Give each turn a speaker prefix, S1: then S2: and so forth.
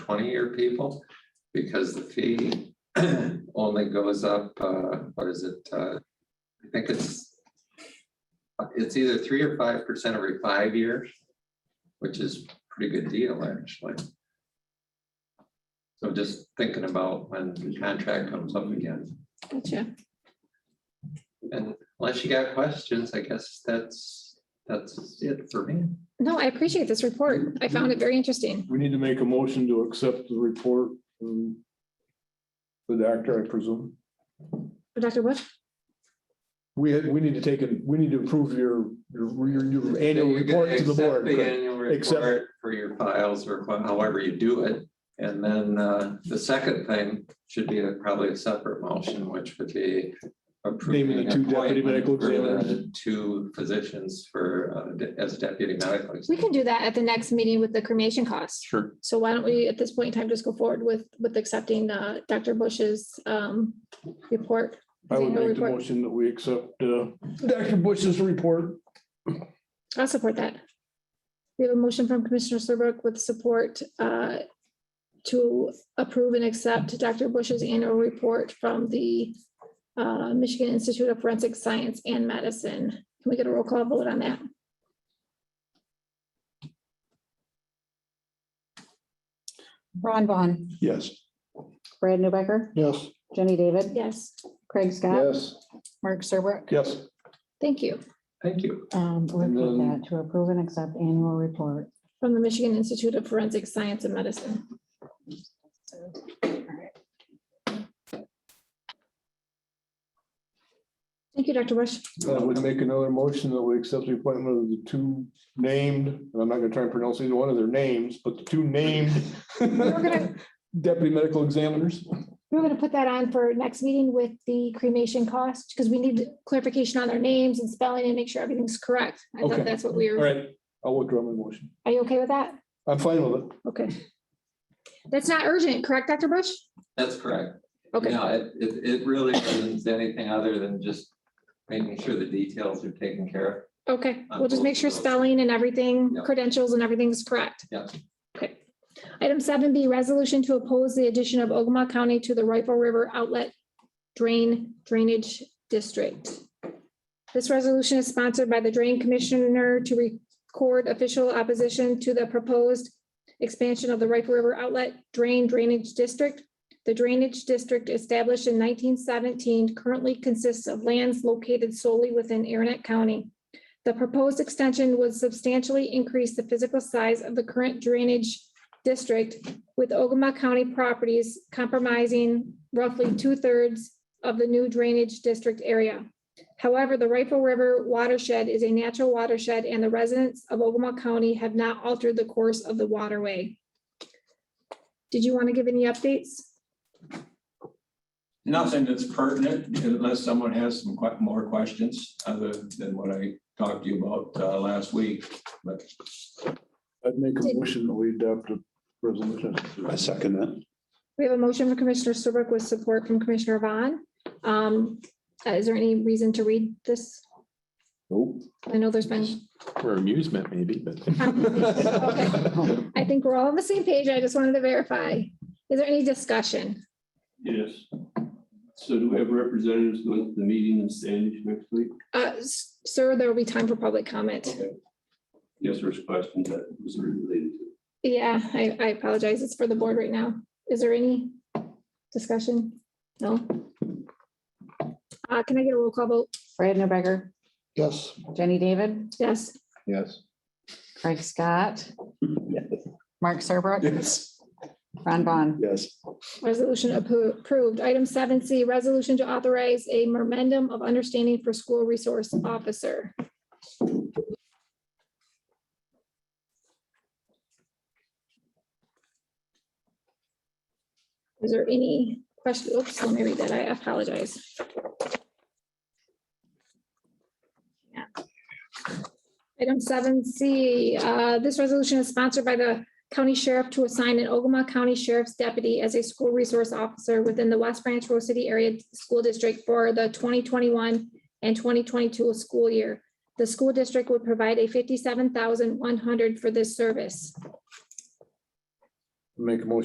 S1: twenty-year people, because the fee only goes up, uh, what is it? uh, I think it's, it's either three or five percent every five years, which is pretty good deal, actually. So just thinking about when the contract comes up again,
S2: Gotcha.
S1: and unless you got questions, I guess that's, that's it for me.
S2: No, I appreciate this report. I found it very interesting.
S3: We need to make a motion to accept the report. from The doctor, I presume.
S2: Dr. Bush?
S3: We had, we need to take it, we need to approve your, your, your- your annual
S1: You can
S3: report to the
S1: accept
S3: board.
S1: The annual
S3: Accept-
S1: report for your files or wha- however you do it. And then uh, the second thing should be a- probably a separate motion, which would be approving
S3: two deputy
S1: appointment
S3: medical
S1: for the
S3: examiners.
S1: Two physicians for, uh, de- as deputy medical.
S2: We can do that at the next meeting with the cremation costs.
S3: Sure.
S2: So why don't we, at this point in time, just go forward with, with accepting uh, Dr. Bush's um, report?
S3: I would
S2: annual
S3: make the
S2: report.
S3: motion that we accept, uh, Dr. Bush's report.
S2: I'll support that. We have a motion from Commissioner Serbrook with support uh, to approve and accept Dr. Bush's annual report from the uh, Michigan Institute of Forensic Science and Medicine. Can we get a roll call vote on that?
S4: Ron Vaughn,
S3: Yes.
S4: Brad Newbecker,
S3: Yes.
S4: Jenny David,
S2: Yes,
S4: Craig Scott,
S3: Yes.
S4: Mark Serbrook.
S3: Yes.
S2: thank you.
S1: Thank you.
S4: Um, repeat that to approve and accept annual report.
S2: From the Michigan Institute of Forensic Science and Medicine. Thank you, Dr. Bush.
S3: I would make another motion that we accept the appointment of the two named, and I'm not gonna try and pronounce either one of their names, but the two named
S2: gonna-
S3: deputy medical examiners.
S2: We're going to put that on for next meeting with the cremation cost because we need clarification on their names and spelling and make sure everything's correct. I
S3: Okay.
S2: thought that's what we
S3: All
S2: were,
S3: right, I'll withdraw my motion.
S2: are you okay with that?
S3: I'm fine with it.
S2: Okay. That's not urgent, correct, Dr. Bush?
S1: That's correct.
S2: Okay,
S1: No, it, it, it really isn't anything other than just making sure the details are taken care of.
S2: okay.
S1: On
S2: We'll just
S1: both
S2: make
S1: of
S2: sure
S1: those.
S2: spelling and everything,
S1: Yep.
S2: credentials and everything's correct.
S1: Yep.
S2: Okay. Item seven B, resolution to oppose the addition of Ogama County to the Rifle River Outlet Drain Drainage District. This resolution is sponsored by the Drain Commissioner to record official opposition to the proposed expansion of the Rifle River Outlet Drain Drainage District. The drainage district established in nineteen seventeen currently consists of lands located solely within Aranet County. The proposed extension would substantially increase the physical size of the current drainage district with Ogama County properties comprising roughly two-thirds of the new drainage district area. However, the Rifle River watershed is a natural watershed and the residents of Ogama County have not altered the course of the waterway. Did you want to give any updates?
S5: Nothing that's pertinent unless someone has some que- more questions other than what I talked to you about uh, last week. But
S3: I'd make
S2: Did-
S3: a motion that we adopt a resolution. I second that.
S2: We have a motion from Commissioner Serbrook with support from Commissioner Vaughn. Um, uh, Is there any reason to read this?
S3: Nope.
S2: I know there's been,
S6: For amusement, maybe, but.
S2: Okay. I think we're all on the same page. I just wanted to verify. Is there any discussion?
S7: Yes. So do we have representatives going to the meeting in Sandwich next week?
S2: Uh, s- Sir, there will be time for public comment.
S7: Yes, there's questions that was related to.
S2: Yeah, I, I apologize. It's for the board right now. Is there any discussion? No? Uh, Can I get a roll call vote?
S4: Brad Newbecker,
S3: Yes.
S4: Jenny David,
S2: Yes.
S3: Yes.
S4: Craig Scott. Mark Serbrook,
S3: Yes.
S4: Ron Vaughn,
S3: Yes.
S2: Resolution appro- approved. Item seven C, resolution to authorize a memorandum of understanding for school resource officer. Is there any question? Oops, let me read that. I apologize. Yeah. Item seven C, uh, this resolution is sponsored by the county sheriff to assign an Ogama County Sheriff's Deputy as a school resource officer within the West Branch Rose City Area School District for the twenty twenty-one and twenty twenty-two school year. The school district would provide a fifty-seven thousand one hundred for this service.
S3: Make a motion